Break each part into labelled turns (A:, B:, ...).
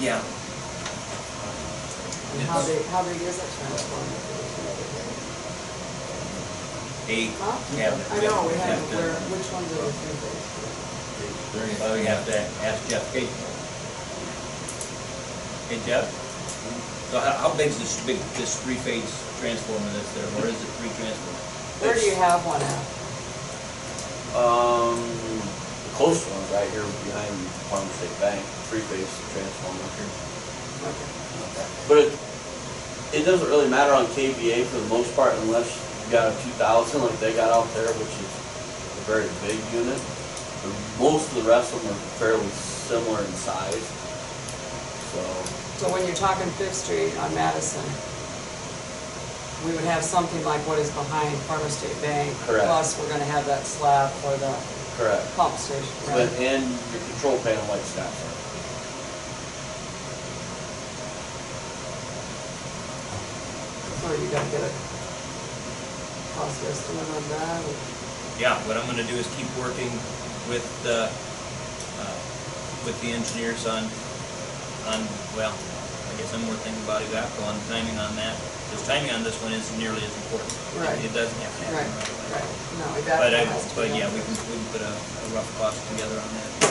A: Yeah,
B: How big, how big is that transformer?
A: eight
B: Huh?
A: cabinets.
B: I know, we have,
A: to-
B: where, which ones are the three
A: Oh, we have to ask Jeff Gates. Hey Jeff? So how, how big's this big, this three-phase transformer that's there, or is it three transformers?
B: big? Where do you have one at?
C: Um, the closest one's right here behind Farm State Bank, three-phase transformer here. But it, it doesn't really matter on KVA for the most part unless you got a two thousand like they got out there, which is a very big unit. But most of the rest of them are fairly similar in size, so.
B: So when you're talking Fifth Street on Madison, we would have something like what is behind Farmer State Bank.
C: Correct.
B: Plus, we're gonna have that slab for the
C: Correct.
B: pump station,
C: But,
B: right?
C: and your control panel like that.
B: So you gotta get a cost estimate on that.
A: Yeah, what I'm gonna do is keep working with the, uh, with the engineers on, on, well, I guess I'm more thinking about Evaco on timing on that. Because timing on this one isn't nearly as important. It-
B: Right.
A: It doesn't have to
B: Right,
A: happen right away.
B: right. No, we got
A: But I,
B: that has to
A: but
B: be
A: yeah,
B: done.
A: we can, we can put a, a rough cost together on that, uh,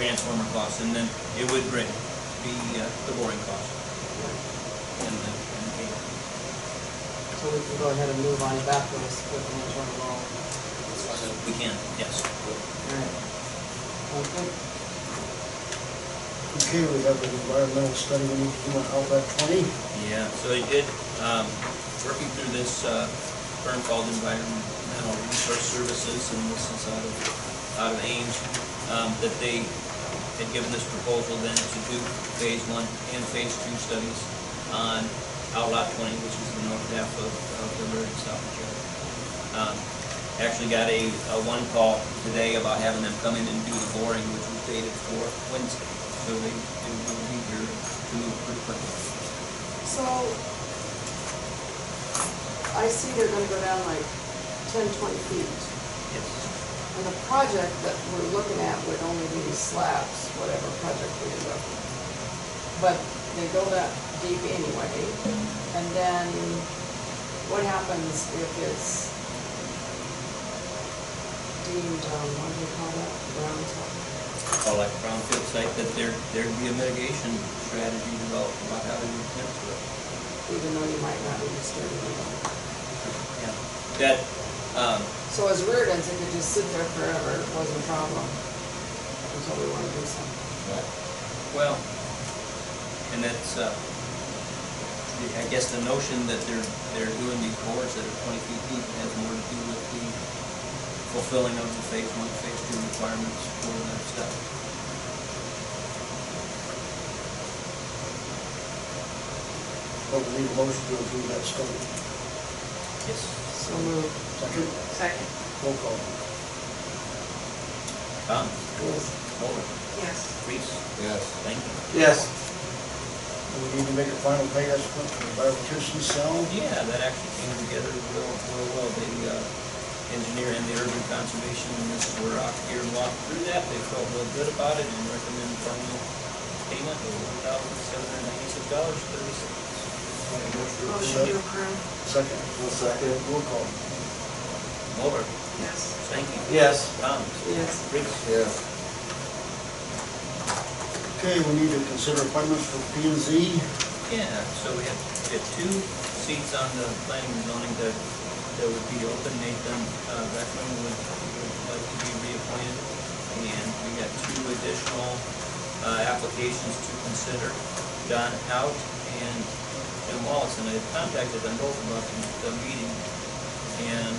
A: transformer cost, and then it would bring, be, uh, the boring cost. And the, and the,
B: So we can go ahead and move on to that list with the internal law.
A: so we can, yes.
B: Alright. Okay.
D: Okay, we have an environmental study we need to do on Outlet 20.
A: Yeah, so I did, um, working through this, uh, firm called Environmental Resource Services, and this is out of, out of Ames, um, that they had given this proposal then to do phase one and phase two studies on Outlot twenty, which is the north half of, of the Meridian South Shore. Um, Actually got a, a one call today about having them come in and do the boring, which was dated for Wednesday, so they, they will be here to move pretty quickly.
B: So, I see they're gonna go down like 10, 20 feet.
A: Yes.
B: And the project that we're looking at would only be slabs, whatever project we end up with. But they go that deep anyway, and then what happens if it's deemed, um, what do you call that, ground top?
A: Or like brownfield site, that there, there'd be a mitigation strategy developed about how to attend to it.
B: Even though you might not be disturbing it.
A: Yeah. That, um,
B: So as Reardon's, it could just sit there forever, it wasn't a problem. Until we wanna do something.
A: well, and that's, uh, the- I guess the notion that they're, they're doing these bores that are twenty feet deep has more to do with the fulfilling of the phase one, phase two requirements for that stuff.
D: But we need a motion to approve that study.
A: Yes.
B: So moved.
D: Second,
E: Second.
D: roll call.
A: Tom?
B: Yes.
A: Muller?
E: Yes.
A: Reese?
F: Yes.
A: Thank you.
C: Yes.
D: We need to make a final pay estimate for the bioelectricity cell.
A: Yeah, that actually came together real, real well. The uh, engineer and the urban conservation and this were out here and walked through that. They felt real good about it and recommended final payment of one thousand seven hundred ninety-six dollars thirty-six.
E: Motion to approve.
D: Second,
C: One second.
D: roll call.
A: Mulder,
E: Yes.
A: Stanky,
C: Yes.
A: Thomas,
B: Yes.
A: Riggs.
F: Yes.
D: Okay, we need to consider appointments for P and Z.
A: Yeah, so we have, we have two seats on the planning and zoning that, that would be open. Nathan uh, Beckman would, would like to be reappointed. And we got two additional uh, applications to consider, Don Out and Jim Wallace. And I contacted them both about the, the meeting. And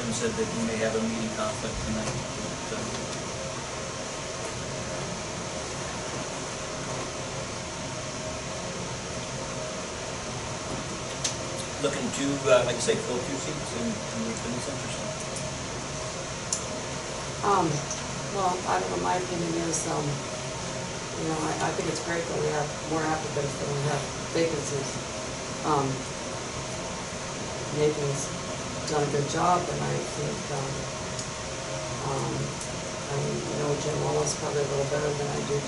A: Jim said that he may have a meeting conflict tonight. but, uh, Looking to, uh, like I say, fill two seats and, and we've been interested.
B: Um, well, I don't know, my opinion is, um, you know, I, I think it's great that we have more applicants than we have vacancies. Um, Nathan's done a good job and I think, um, um, I I know Jim Wallace probably a little better than I do,